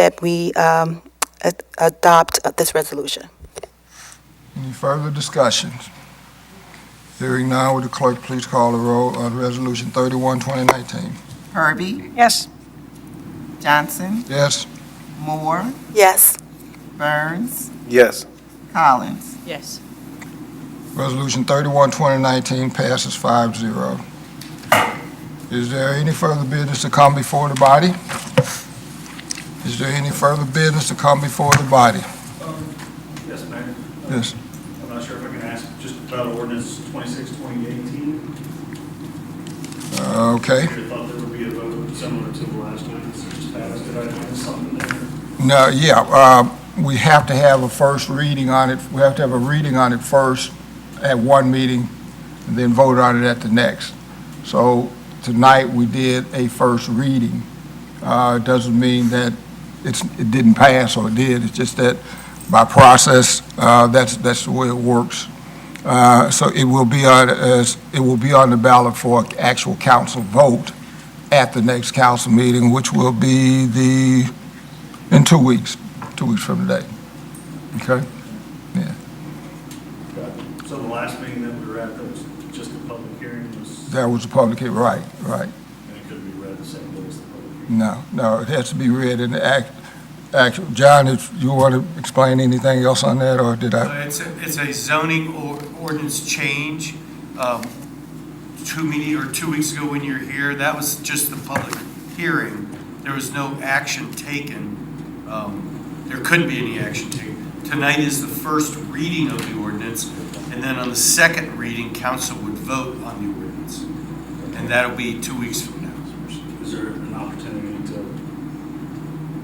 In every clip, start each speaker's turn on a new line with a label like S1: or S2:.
S1: that we um, a- adopt uh, this resolution.
S2: Any further discussions? Hearing now, would the clerk please call the roll on Resolution 31, 2019?
S3: Herbie,
S4: Yes.
S3: Johnson,
S2: Yes?
S3: Moore,
S1: Yes.
S3: Burns,
S5: Yes.
S3: Collins.
S4: Yes.
S2: Resolution 31, 2019 passes 5-0. Is there any further business to come before the body? Is there any further business to come before the body?
S6: Um, Yes, Mayor.
S2: Yes.
S6: I'm not sure if I can ask just about ordinance 26, 2018.
S2: Uh, Okay.
S6: I thought there would be a vote similar to the last one that just passed. Did I miss something there?
S2: No, yeah, uh, we have to have a first reading on it, we have to have a reading on it first at one meeting, and then vote on it at the next. So tonight, we did a first reading. Uh, It doesn't mean that it's, it didn't pass or it did, it's just that by process, uh, that's, that's the way it works. Uh, So it will be on, as- it will be on the ballot for actual council vote at the next council meeting, which will be the in two weeks, two weeks from today. Okay?
S6: So the last meeting that we were at, that was just a public hearing, was,
S2: That was the public, hea- right, right.
S6: and it could be read the same way as the public hearing.
S2: No, no, it has to be read in the act, actual. John, if you want to explain anything else on that, or did I?
S7: Uh, It's, a- it's a zoning or- ordinance change. Um, Two meeting, or two weeks ago when you were here, that was just the public hearing. There was no action taken. Um, There couldn't be any action taken. Tonight is the first reading of the ordinance, and then on the second reading, council would vote on the ordinance. And that'll be two weeks from now.
S6: Is there an opportunity to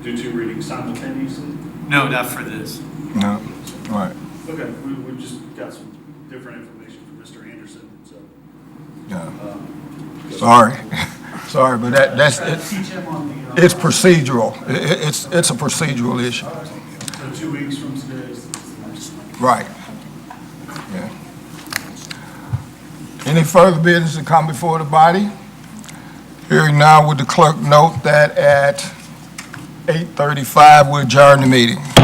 S6: do two readings simultaneously?
S7: No, not for this.
S2: No. Right,
S6: Okay, we, we just got some different information from Mr. Anderson, so.
S2: yeah,
S6: um,
S2: sorry, sorry, but that, that's,
S6: Try to
S2: it's-
S6: teach him on the, uh,
S2: it's procedural. I- i- It's, it's a procedural issue,
S6: So two weeks from today is
S2: right. Yeah. Any further business to come before the body? Hearing now, would the clerk note that at 8:35, we adjourn the meeting.